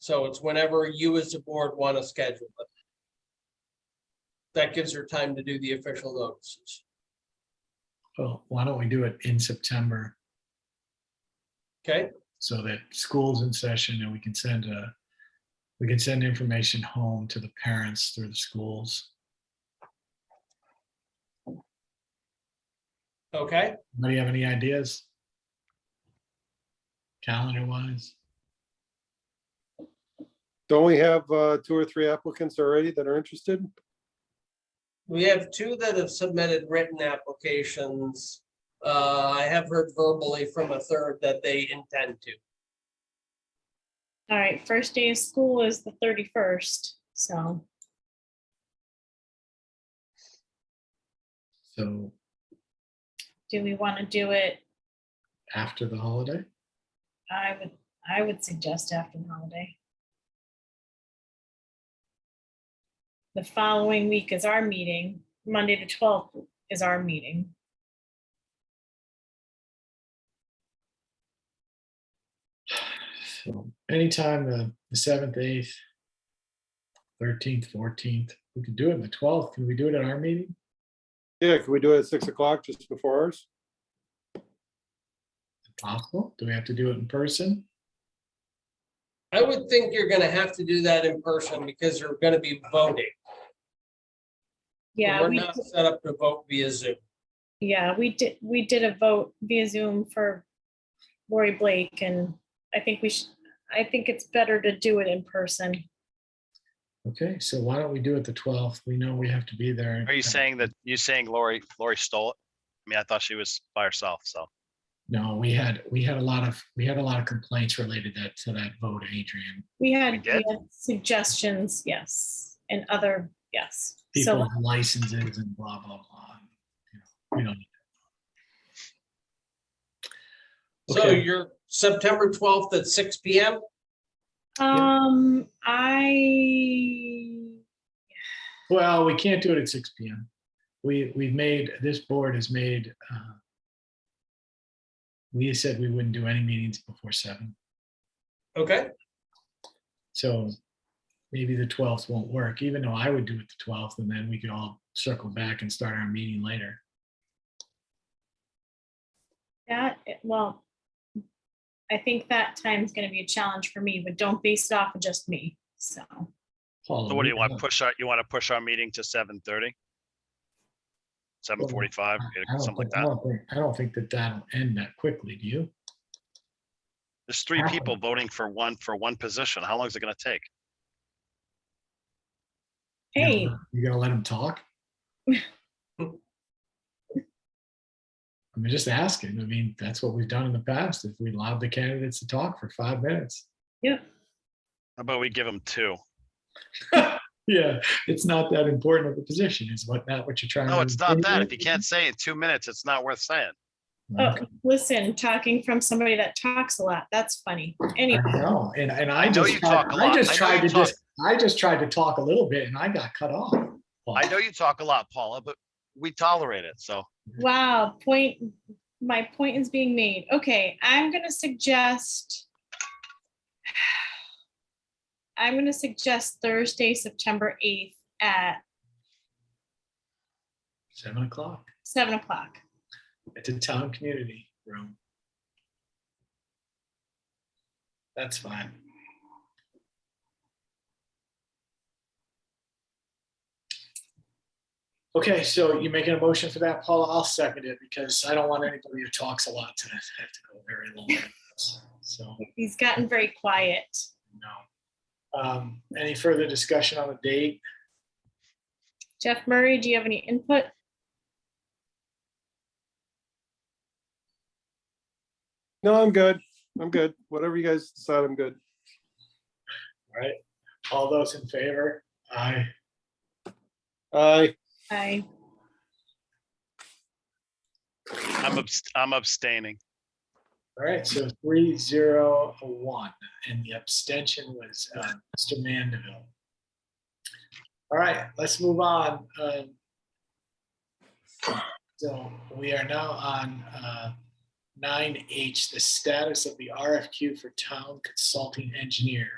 So it's whenever you as a board want to schedule it. That gives her time to do the official notices. Well, why don't we do it in September Okay, so that school's in session and we can send a, we can send information home to the parents through the schools. okay. Anybody have any ideas? Calendar wise, Don't we have uh, two or three applicants already that are interested? We have two that have submitted written applications. Uh, I have heard verbally from a third that they intend to. All right, first day of school is the thirty-first, so so do we want to do it? after the holiday, I would, I would suggest after the holiday. The following week is our meeting, Monday the twelfth is our meeting. so anytime the the seventh, eighth, thirteenth, fourteenth, we could do it on the twelfth. Can we do it at our meeting? Yeah, can we do it at six o'clock just before ours? Possible? Do we have to do it in person? I would think you're gonna have to do that in person because you're gonna be voting. Yeah, We're we, not set up to vote via Zoom. yeah, we did, we did a vote via Zoom for Lori Blake, and I think we should, I think it's better to do it in person. Okay, so why don't we do it the twelfth? We know we have to be there. Are you saying that, you saying Lori, Lori stole it? I mean, I thought she was by herself, so. No, we had, we had a lot of, we had a lot of complaints related that, to that vote, Adrian. We had We did? we had suggestions, yes, and other, yes. People So, with licenses and blah, blah, blah. You know, We don't. So Okay. you're September twelfth at six P M. um, I, Well, we can't do it at six P M. We, we've made, this board has made, uh, we said we wouldn't do any meetings before seven. Okay, So maybe the twelfth won't work, even though I would do it the twelfth and then we could all circle back and start our meeting later. that, eh, well, I think that time's gonna be a challenge for me, but don't base it off of just me, so. Paula, So what do you want to have- push our, you want to push our meeting to seven thirty? Seven forty-five, I don't something like think- I that. don't think- I don't think that that'll end that quickly, do you? There's three I- people voting for one, for one position. How long is it gonna take? You gonna- Hey, You gonna let him talk? I'm just asking. I mean, that's what we've done in the past. If we allowed the candidates to talk for five minutes. How about we give them two? Yeah, it's not that important of a position, is what, not what you're trying to. No, it's not that. If you insinuate? can't say in two minutes, it's not worth saying. oh, Okay. listen, talking from somebody that talks a lot, that's funny. Anyway, I know, and, and I I know just, you tried- talk a I lot. just I know tried to you talk. just, I just tried to talk a little bit and I got cut off. I Oh. know you talk a lot, Paula, but we tolerate it, so. wow, point, my point is being made. Okay, I'm gonna suggest I'm gonna suggest Thursday, September eighth at Seven o'clock seven o'clock. at the town community room. That's fine. Okay, so you making a motion for that, Paula? I'll second it because I don't want anybody who talks a lot to have to go very long. So. He's gotten very quiet. No. Um, Any further discussion on the date? Jeff Murray, do you have any input? No, I'm good. I'm good. Whatever you guys decide, I'm good. All right. All those in favor? Aye. Aye. I, I'm, abst- I'm abstaining. All right, so three zero one, and the abstention was uh, Mr. Mandeville. All right, let's move on. um, So we are now on uh, nine H, the status of the RFQ for town consulting engineer.